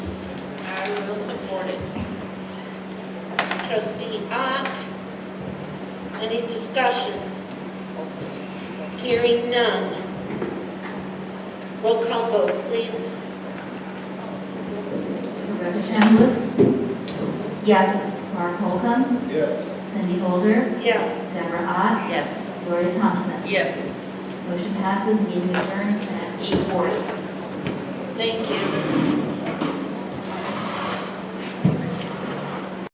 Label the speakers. Speaker 1: morning. Trustee Ott, any discussion? Hearing none. Roll call vote, please.
Speaker 2: Rebecca Shambliss? Yes. Mark Holcomb?
Speaker 3: Yes.
Speaker 2: Cindy Holder?
Speaker 1: Yes.
Speaker 2: Deborah Ott?
Speaker 1: Yes.
Speaker 2: Gloria Thompson?
Speaker 1: Yes.
Speaker 2: Motion passes, meeting adjourned at 8:40.
Speaker 1: Thank you.